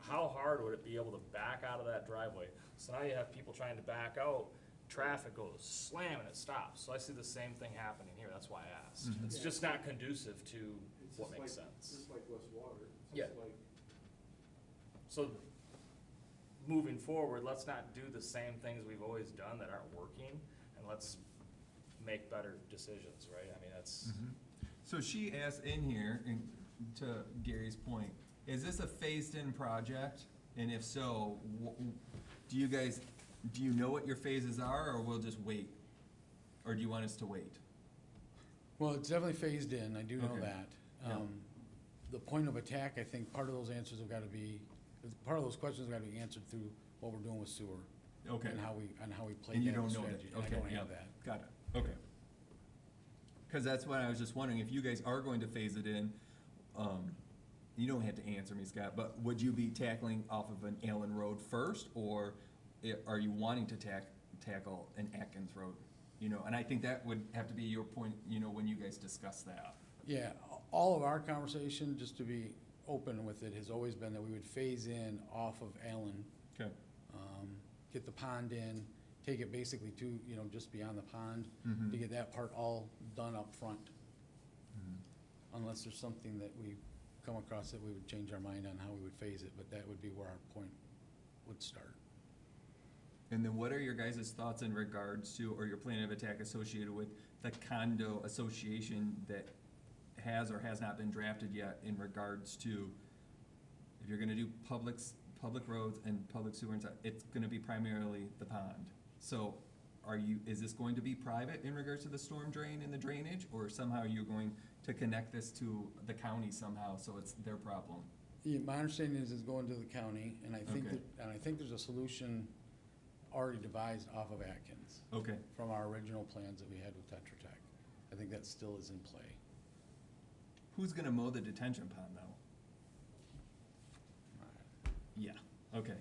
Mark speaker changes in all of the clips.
Speaker 1: how hard would it be able to back out of that driveway? So now you have people trying to back out, traffic goes slam and it stops. So I see the same thing happening here, that's why I asked.
Speaker 2: Mm-hmm.
Speaker 1: It's
Speaker 3: Yeah.
Speaker 1: just not conducive to
Speaker 3: It's
Speaker 1: what
Speaker 3: just
Speaker 1: makes
Speaker 3: like-
Speaker 1: sense.
Speaker 3: Just like West Water, it's
Speaker 1: Yeah.
Speaker 3: just like,
Speaker 1: So moving forward, let's not do the same things we've always done that aren't working and let's make better decisions, right? I mean, that's,
Speaker 2: Mhm. So she asked in here, and to Gary's point, is this a phased-in project? And if so, wh- do you guys, do you know what your phases are, or we'll just wait? Or do you want us to wait?
Speaker 4: Well, it's definitely phased in, I do know
Speaker 2: Okay.
Speaker 4: that.
Speaker 2: Yeah.
Speaker 4: Um, The point of attack, I think part of those answers have got to be, part of those questions have got to be answered through what we're doing with sewer.
Speaker 2: Okay.
Speaker 4: And how we, and how we play
Speaker 2: And you
Speaker 4: that
Speaker 2: don't know
Speaker 4: strategy.
Speaker 2: that,
Speaker 4: And
Speaker 2: okay,
Speaker 4: I don't
Speaker 2: yeah,
Speaker 4: have that.
Speaker 2: got it, okay. Cause that's what I was just wondering, if you guys are going to phase it in, um, you don't have to answer me, Scott, but would you be tackling off of an Allen Road first, or i- are you wanting to tack, tackle an Atkins Road? You know, and I think that would have to be your point, you know, when you guys discuss that.
Speaker 4: Yeah, all of our conversation, just to be open with it, has always been that we would phase in off of Allen,
Speaker 2: Okay.
Speaker 4: um, get the pond in, take it basically to, you know, just beyond the pond, to get that part all done up front. Unless there's something that we come across that we would change our mind on how we would phase it, but that would be where our point would start.
Speaker 2: And then what are your guys' thoughts in regards to, or your plan of attack associated with the condo association that has or has not been drafted yet in regards to, if you're gonna do publics, public roads and public sewer, and stuff, it's gonna be primarily the pond. So are you, is this going to be private in regards to the storm drain and the drainage, or somehow you're going to connect this to the county somehow, so it's their problem?
Speaker 4: Yeah, my understanding is it's going to the county, and I think,
Speaker 2: Okay.
Speaker 4: that- and I think there's a solution already devised off of Atkins.
Speaker 2: Okay,
Speaker 4: from our original plans that we had with Tetra Tech. I think that still is in play.
Speaker 2: who's gonna mow the detention pond though? Yeah, okay.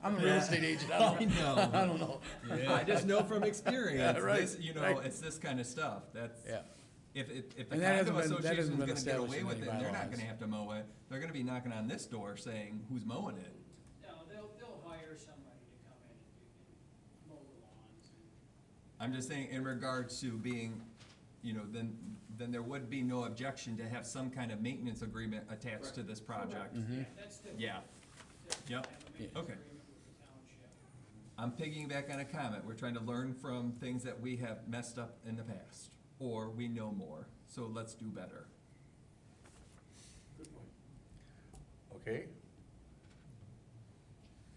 Speaker 4: I'm a real estate agent, I
Speaker 2: I
Speaker 4: don't,
Speaker 2: know.
Speaker 4: I don't know.
Speaker 2: I just know from experience,
Speaker 4: Yeah, right,
Speaker 2: this, you know,
Speaker 4: right.
Speaker 2: it's this kind of stuff, that's,
Speaker 4: Yeah,
Speaker 2: if, it- if the
Speaker 4: And that
Speaker 2: condo
Speaker 4: hasn't been- that
Speaker 2: association's
Speaker 4: hasn't been
Speaker 2: gonna get
Speaker 4: established
Speaker 2: away
Speaker 4: in
Speaker 2: with
Speaker 4: any
Speaker 2: it, they're not
Speaker 4: bylaws.
Speaker 2: gonna have to mow it, they're gonna be knocking on this door saying, who's mowing it?
Speaker 5: No, they'll, they'll hire somebody to come in and do, and mow the lawns and.
Speaker 2: I'm just saying, in regards to being, you know, then, then there would be no objection to have some kind of maintenance agreement attached to this project.
Speaker 4: Mm-hmm.
Speaker 5: Yeah, that's different.
Speaker 2: Mm-hmm. Yeah.
Speaker 5: Different.
Speaker 2: Yep.
Speaker 5: Have
Speaker 4: Yeah.
Speaker 5: a maintenance
Speaker 2: Okay.
Speaker 5: agreement with the township.
Speaker 2: I'm piggyback on a comment. We're trying to learn from things that we have messed up in the past, or we know more. So let's do better.
Speaker 3: good point.
Speaker 2: Mm-hmm.
Speaker 6: Okay,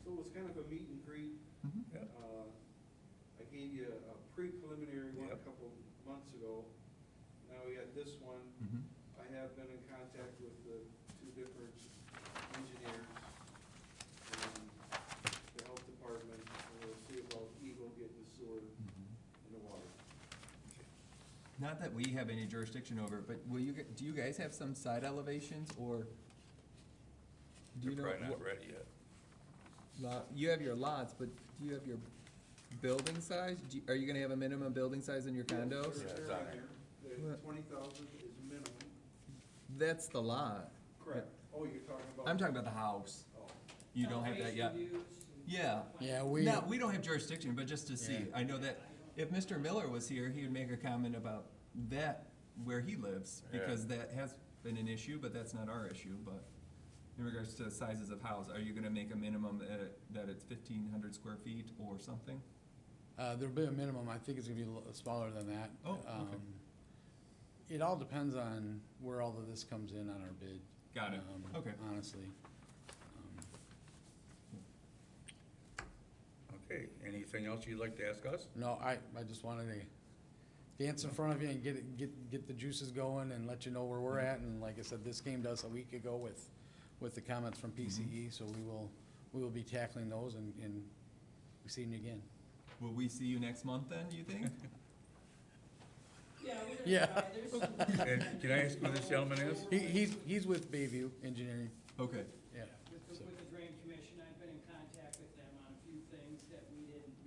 Speaker 3: So it was kind of a meet and greet.
Speaker 4: Mm-hmm.
Speaker 6: Yeah.
Speaker 3: Uh, I gave you a pre-preliminary one a
Speaker 6: Yep.
Speaker 3: couple months ago. Now we got this one.
Speaker 4: Mm-hmm.
Speaker 3: I have been in contact with the two different engineers, um, the health department, and we'll see about Eagle getting the sewer and
Speaker 4: Mm-hmm.
Speaker 3: the water.
Speaker 2: Not that we have any jurisdiction over, it, but will you, g- do you guys have some side elevations or? do you
Speaker 6: they're
Speaker 2: know
Speaker 6: probably not
Speaker 2: what
Speaker 6: ready yet.
Speaker 2: lot- You have your lots, but do you have your building size? Do you- Are you gonna have a minimum building size in your condos?
Speaker 6: Yeah.
Speaker 3: They're-
Speaker 6: it's
Speaker 3: they're
Speaker 6: on
Speaker 3: on
Speaker 6: there.
Speaker 3: there. The
Speaker 2: What?
Speaker 3: twenty thousand is minimum.
Speaker 2: That's the lot.
Speaker 3: Correct. Oh, you're talking about.
Speaker 2: I'm talking about the house.
Speaker 3: Oh.
Speaker 2: You don't have that yet.
Speaker 5: Elevation views and-
Speaker 2: Yeah.
Speaker 4: yeah, we,
Speaker 2: No, we don't have jurisdiction, but just to see,
Speaker 4: Yeah.
Speaker 2: I know that if Mr. Miller was here, he would make a comment about that, where he lives,
Speaker 6: Yeah.
Speaker 2: because that has been an issue, but that's not our issue, but in regards to sizes of house, are you gonna make a minimum that, it- that it's fifteen hundred square feet or something?
Speaker 4: uh, there'll be a minimum, I think it's gonna be a little smaller than that.
Speaker 2: Oh, okay.
Speaker 4: Um, It all depends on where all of this comes in on our bid.
Speaker 2: Got it,
Speaker 4: um,
Speaker 2: okay.
Speaker 4: Honestly. Um,
Speaker 6: Okay, anything else you'd like to ask us?
Speaker 4: No, I, I just wanted to dance in front of you and get, it- get, get the juices going and let you know where
Speaker 2: Mm-hmm.
Speaker 4: we're at. And like I said, this came to us a week ago with, with the comments
Speaker 2: Mm-hmm.
Speaker 4: from PCE, so we will, we will be tackling those and, and seeing you again.
Speaker 2: Will we see you next month then, you think?
Speaker 5: Yeah, we're gonna
Speaker 4: Yeah.
Speaker 5: try. There's some-
Speaker 6: And can I ask who this gentleman is?
Speaker 4: He, he's, he's with Bayview Engineering,
Speaker 2: Okay,
Speaker 4: yeah.
Speaker 5: With the,
Speaker 4: so.
Speaker 5: with the drain commission, I've been in contact with them on a few things that we didn't um,